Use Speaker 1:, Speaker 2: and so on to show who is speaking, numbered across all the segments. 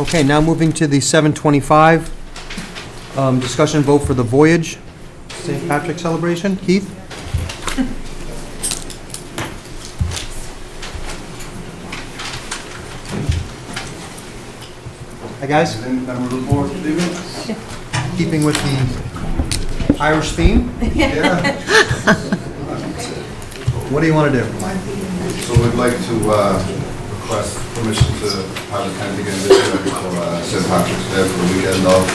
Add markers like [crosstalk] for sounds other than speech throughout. Speaker 1: Okay, now moving to the 7:25, um, discussion vote for the Voyage St. Patrick Celebration. Keith? Hi, guys. Keeping with the Irish theme? What do you want to do?
Speaker 2: So we'd like to uh, request permission to have a tent again this year for uh, St. Patrick's Day for the weekend of,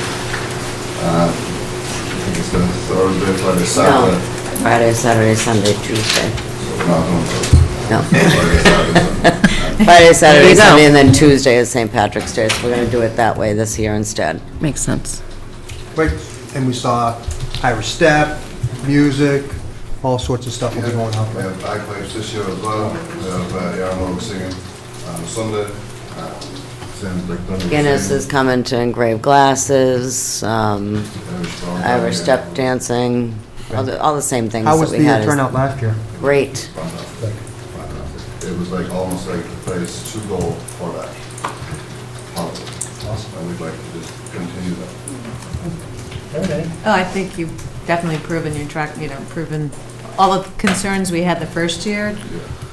Speaker 2: uh, I think it's the third day, Friday,
Speaker 3: No,
Speaker 2: Saturday.
Speaker 3: Friday, Saturday, Sunday, Tuesday.
Speaker 2: So we're not doing it.
Speaker 3: No.
Speaker 2: Friday, Saturday, Sunday.
Speaker 3: [laughs] Friday, Saturday,
Speaker 4: you go.
Speaker 3: Sunday, and then Tuesday is St. Patrick's Day, so we're gonna do it that way this year instead.
Speaker 4: Makes sense.
Speaker 1: Right, and we saw Irish step, music, all sorts of stuff will be going on
Speaker 2: We have bagpipes this year as well, we have uh, Yarmo singing on Sunday. uh, Same like Dundee
Speaker 3: Guinness
Speaker 2: singing,
Speaker 3: is coming to engrave glasses, um,
Speaker 2: Irish drum band,
Speaker 3: Irish step
Speaker 2: yeah.
Speaker 3: dancing, all the, all the same things
Speaker 1: How was
Speaker 3: that
Speaker 1: the
Speaker 3: we had.
Speaker 1: uh,
Speaker 3: is
Speaker 1: turnout last year?
Speaker 3: Great.
Speaker 2: Fantastic, fantastic. It was like, almost like the place to go for that holiday. And we'd like to just continue that.
Speaker 5: Oh, I think you've definitely proven your track, you know, proven all of the concerns we had the first year.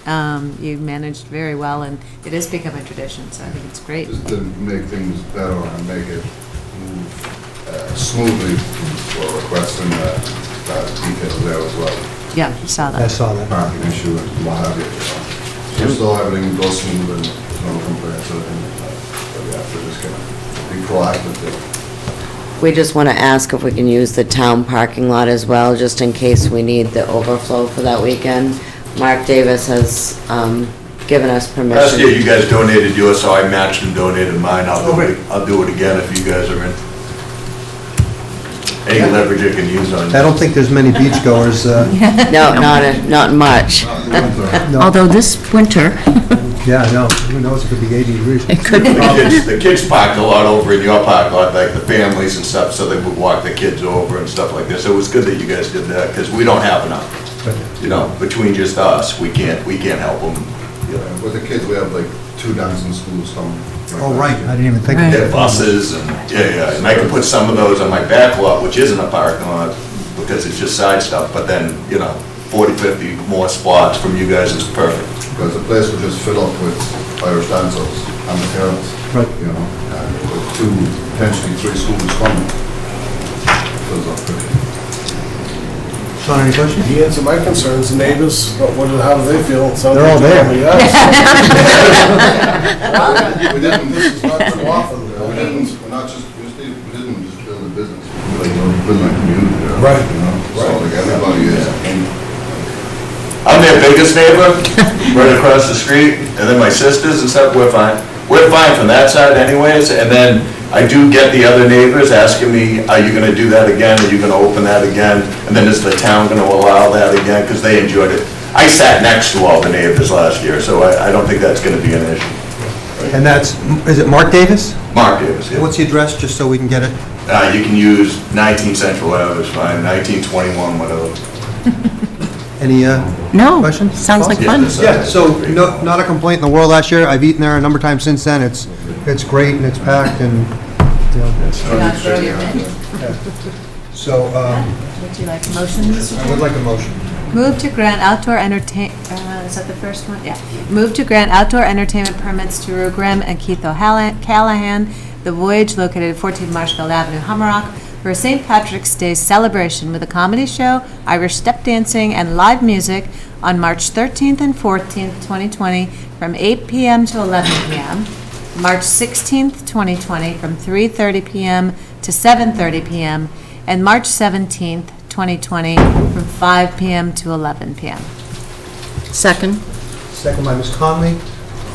Speaker 2: Yeah.
Speaker 5: Um, You managed very well, and it is becoming a tradition, so I think it's great.
Speaker 2: Just to make things better and make it move uh, smoothly, we're requesting uh, that detail there as well.
Speaker 5: Yeah, saw
Speaker 1: I
Speaker 5: that.
Speaker 1: saw that.
Speaker 2: Parking issue and what have you. you know. Just so everything goes smooth and there's no complaints or anything like that. But we have to just kind of be proactive there.
Speaker 3: We just wanna ask if we can use the town parking lot as well, just in case we need the overflow for that weekend. Mark Davis has, um, given us permission.
Speaker 6: Last year, you guys donated yours, so I matched and donated mine. I'll
Speaker 2: Oh,
Speaker 6: do it, I'll do it again if you guys are in. Any leverage you can use on
Speaker 1: I
Speaker 6: it.
Speaker 1: don't think there's many beachgoers,
Speaker 4: [laughs]
Speaker 1: uh,
Speaker 3: No, not, a- not much.
Speaker 1: no,
Speaker 4: Although this winter,
Speaker 1: yeah, no, who knows, it could be 80 degrees.
Speaker 4: it could
Speaker 1: [laughs]
Speaker 4: be.
Speaker 6: The kids, the kids park a lot over in your park lot, like the families and stuff, so they would walk the kids over and stuff like this. So It was good that you guys did that, because we don't have enough, you know, between just us, we can't, we can't help them, you know.
Speaker 2: With the kids, we have like two dancing schools coming.
Speaker 1: Oh, right, I didn't even think of
Speaker 4: Right.
Speaker 6: Their
Speaker 1: that.
Speaker 6: buses and, yeah, yeah, and I can put some of those on my back lot, which isn't a parking lot, because it's just side stuff, but then, you know, 40, 50 more spots from you guys is perfect.
Speaker 2: Because the place would just fill up with Irish dancers and the parents.
Speaker 1: Right.
Speaker 2: You know, and with two, potentially three schools coming, fills up pretty.
Speaker 1: Sean, any questions?
Speaker 7: He answered my concerns, the neighbors, what, what, how do they feel? So-
Speaker 1: They're all there.
Speaker 7: Yes.
Speaker 2: We didn't, this is not too often, you know, we didn't, we're not just, we just didn't, we didn't just build a business, we like, we're building a community. you know,
Speaker 7: Right.
Speaker 2: You know, so like everybody is, and
Speaker 6: I'm their biggest neighbor, right across the street, and then my sisters and stuff, we're fine. We're fine from that side anyways, and then I do get the other neighbors asking me, are you gonna do that again, are you gonna open that again? And then is the town gonna allow that again, because they enjoyed it. I sat next to all the neighbors last year, so I, I don't think that's gonna be an issue.
Speaker 1: And that's, is it Mark Davis?
Speaker 6: Mark Davis, yeah.
Speaker 1: What's the address, just so we can get it?
Speaker 6: Uh, you can use 19 Central Ave, it's fine, 1921, whatever.
Speaker 1: Any uh,
Speaker 4: No,
Speaker 1: questions?
Speaker 4: sounds like
Speaker 6: Yeah,
Speaker 4: fun.
Speaker 6: that's-
Speaker 1: Yeah, so, no, not a complaint in the world last year, I've eaten there a number of times since then, it's, it's great and it's packed and, you know,
Speaker 5: Not grow your menu.
Speaker 1: so, um,
Speaker 5: Would you like motions?
Speaker 1: I would like a motion.
Speaker 5: Move to grant outdoor entertain, uh, is that the first one? Yeah. Move to grant outdoor entertainment permits to Rue Grimm and Keith O'Callahan, The Voyage located at 14 Marshfield Avenue, Hummerock, for a St. Patrick's Day celebration with a comedy show, Irish step dancing, and live music on March 13th and 14th, 2020, from 8 PM to 11 PM. March 16th, 2020, from 3:30 PM to 7:30 PM, and March 17th, 2020, from 5 PM to 11 PM.
Speaker 4: Second,
Speaker 1: Second by Ms. Conley.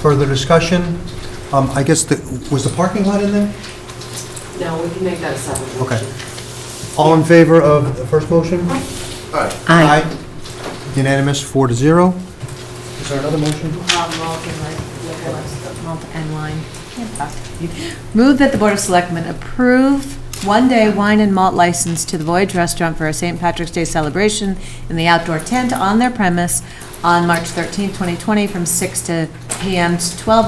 Speaker 1: Further discussion? Um, I guess the, was the parking lot in there?
Speaker 3: No, we can make that a separate
Speaker 1: Okay. All in favor of the first motion?
Speaker 4: aye.
Speaker 1: Unanimous, four to zero. Is there another motion?
Speaker 5: Malt and wine. Can't talk. Move that the Board of Selectmen approve one-day wine and malt license to the Voyage Restaurant for a St. Patrick's Day celebration in the outdoor tent on their premise on March 13th, 2020, from 6 to PM to 12